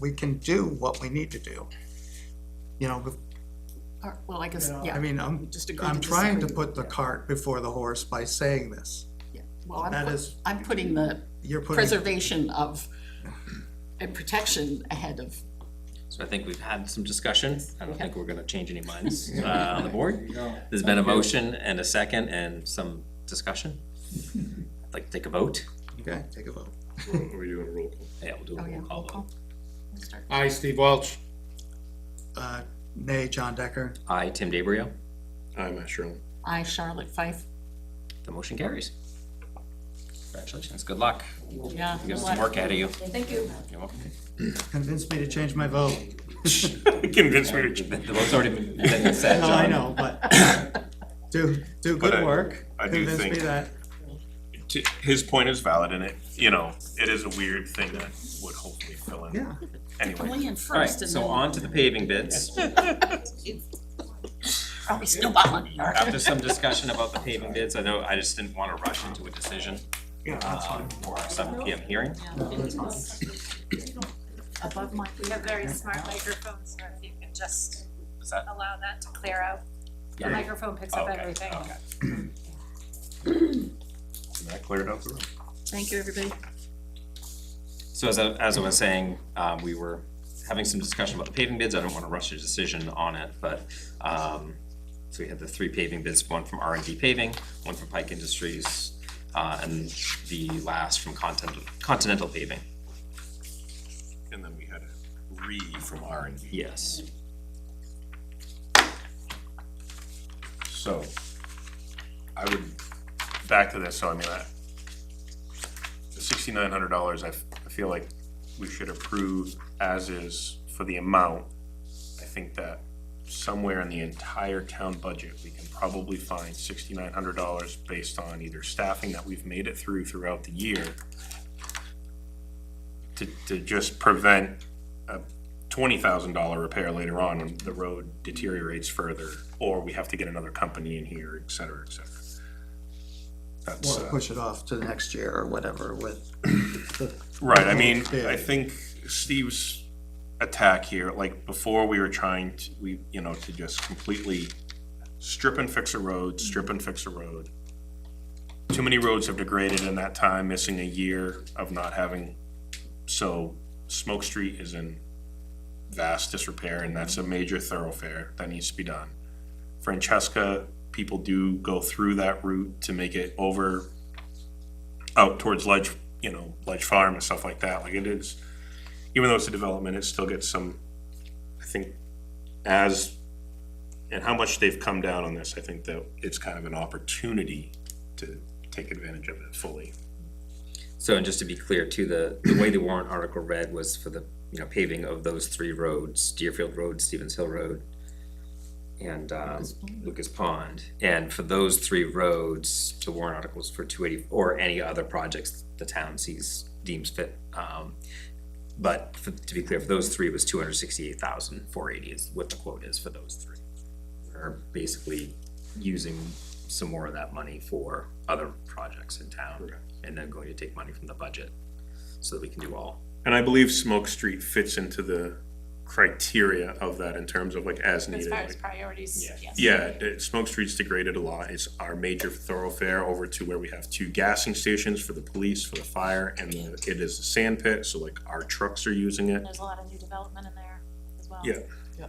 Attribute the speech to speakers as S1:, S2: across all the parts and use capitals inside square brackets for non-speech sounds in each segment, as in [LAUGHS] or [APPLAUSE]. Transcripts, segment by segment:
S1: we can do what we need to do. You know,
S2: Or- Well, I guess,
S3: Yeah.
S1: I
S2: yeah,
S1: mean, I'm,
S2: just agree to
S1: I'm trying to
S2: disagree.
S1: put the cart before the horse by saying this.
S2: Yeah. Well, I'm,
S1: That
S2: put-
S1: is-
S2: I'm putting the
S1: You're putting,
S2: preservation of, and protection ahead of,
S4: So I think we've had some discussion, I don't think we're gonna change any
S1: [LAUGHS]
S4: minds, uh, on the
S3: There
S4: board.
S3: you go.
S4: There's been a motion and a second and some discussion. I'd like to take a vote,
S1: okay, take a vote.
S5: Are we doing a roll call?
S4: yeah, we'll do a
S2: oh yeah,
S4: roll
S2: roll
S4: call
S2: call.
S4: vote.
S2: Let's start.
S5: Aye, Steve Welch.
S1: Uh, nay, John Decker,
S4: Aye, Tim DeBrio,
S5: Aye, Matt Sherlin.
S2: I, Charlotte Fife,
S4: the motion carries. Congratulations, good luck,
S2: yeah.
S4: you have some work ahead of you.
S2: Thank you.
S4: You're welcome.
S1: convince me to change my vote.
S5: Convince me
S4: The the vote's already
S1: [LAUGHS]
S4: been been said,
S1: No, I
S4: John.
S1: know, but
S5: [LAUGHS]
S1: do, do
S5: But I-
S1: good work,
S5: I do
S1: convince me
S5: think-
S1: that,
S5: to, his point is valid and it, you know, it is a weird thing that would hopefully fill in.
S1: yeah.
S5: Anyway,
S2: Land
S4: Alright,
S2: first and
S4: so
S2: then,
S4: on to the
S2: [LAUGHS]
S4: paving bids.
S2: are we snowballing here?
S4: After some discussion about the paving bids, I know I just didn't wanna rush into a decision,
S1: Yeah, that's
S4: uh,
S1: fine.
S4: for our seven P M hearing.
S2: Above my,
S6: We have very smart microphones, so if you can just
S4: Is that?
S6: allow that to clear out. The
S4: Yeah.
S6: microphone picks up
S4: Okay,
S6: everything.
S4: okay.
S5: that cleared out the room.
S2: thank you, everybody.
S4: So as I, as I was saying, um, we were having some discussion about the paving bids, I don't wanna rush a decision on it, but, um, so we had the three paving bids, one from R and D paving, one from Pike Industries, uh, and the last from Continental, Continental Paving,
S5: And then we had a re from R and D.
S4: yes.
S5: So I would, back to this, so I mean, I, the sixty-nine hundred dollars, I, f- I feel like we should approve as is for the amount. I think that somewhere in the entire town budget, we can probably find sixty-nine hundred dollars based on either staffing that we've made it through throughout the year to, to just prevent a twenty thousand dollar repair later on when the road deteriorates further, or we have to get another company in here, et cetera, et cetera. That's,
S1: Or
S5: uh,
S1: push it off to the next year or whatever with,
S5: Right, I mean,
S1: Yeah.
S5: I think Steve's attack here, like, before we were trying to, we, you know, to just completely strip and fix a road, strip and fix a road. Too many roads have degraded in that time, missing a year of not having, so Smoke Street is in vast disrepair, and that's a major thoroughfare that needs to be done. Francesca, people do go through that route to make it over out towards Ledge, you know, Ledge Farm and stuff like that, like it is, even though it's a development, it still gets some, I think, as, and how much they've come down on this, I think that it's kind of an opportunity to take advantage of it fully.
S4: So, and just to be clear too, the, the way the warrant article read was for the, you know, paving of those three roads, Deerfield Road, Stevens Hill Road, and, um, Lucas Pond. And for those three roads, the warrant article was for two eighty, or any other projects the town sees, deems fit. Um, but for- to be clear, for those three, it was two hundred sixty-eight thousand, four eighty is what the quote is for those three. We're basically using some more of that money for other projects in town, and then going to take money from the budget, so that we can do all.
S5: And I believe Smoke Street fits into the criteria of that in terms of like as
S6: As
S5: needed.
S6: far as
S5: like-
S6: priorities,
S4: Yeah.
S6: yes.
S5: Yeah, the- Smoke Street's degraded a lot. It's our major thoroughfare over to where we have two gassing stations for the police, for the fire, and the- it is a sand pit, so like our trucks are using it.
S6: And there's a lot of new development in there as well.
S5: Yeah,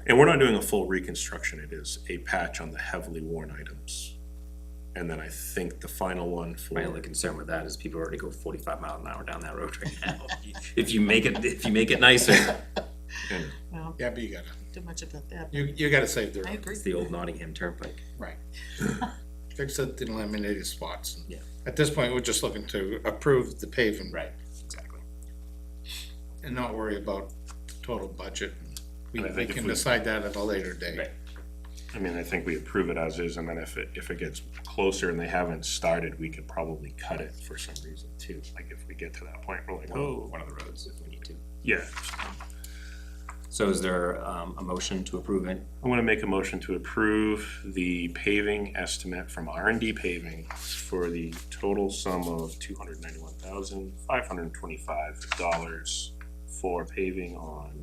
S5: and we're not doing a full reconstruction. It is a patch on the heavily worn items. And then I think the final one for.
S4: My only concern with that is people already go forty-five mile an hour down that road right now. If you make it, if you make it nicer,
S2: No,
S3: Yeah, but you gotta,
S2: too much about that.
S3: you, you gotta save the
S2: I
S3: road,
S2: agree.
S4: it's the old Nottingham Turnpike.
S3: right. Fix the eliminated spots. and
S4: Yeah.
S3: At this point, we're just looking to approve the paving.
S4: Right, exactly.
S3: And not worry about total budget. We,
S5: And I
S3: we
S5: think if
S3: can
S5: we-
S3: decide that at a later date.
S4: Right.
S5: I mean, I think we approve it as is, and then if it, if it gets closer and they haven't started, we could probably cut it for some reason too. Like if we get to that point, we're like,
S4: One,
S5: oh,
S4: one of the roads if we need to.
S5: yeah.
S4: So is there, um, a motion to approve it?
S5: I want to make a motion to approve the paving estimate from R and D paving for the total sum of two hundred ninety-one thousand, five hundred and twenty-five dollars for paving on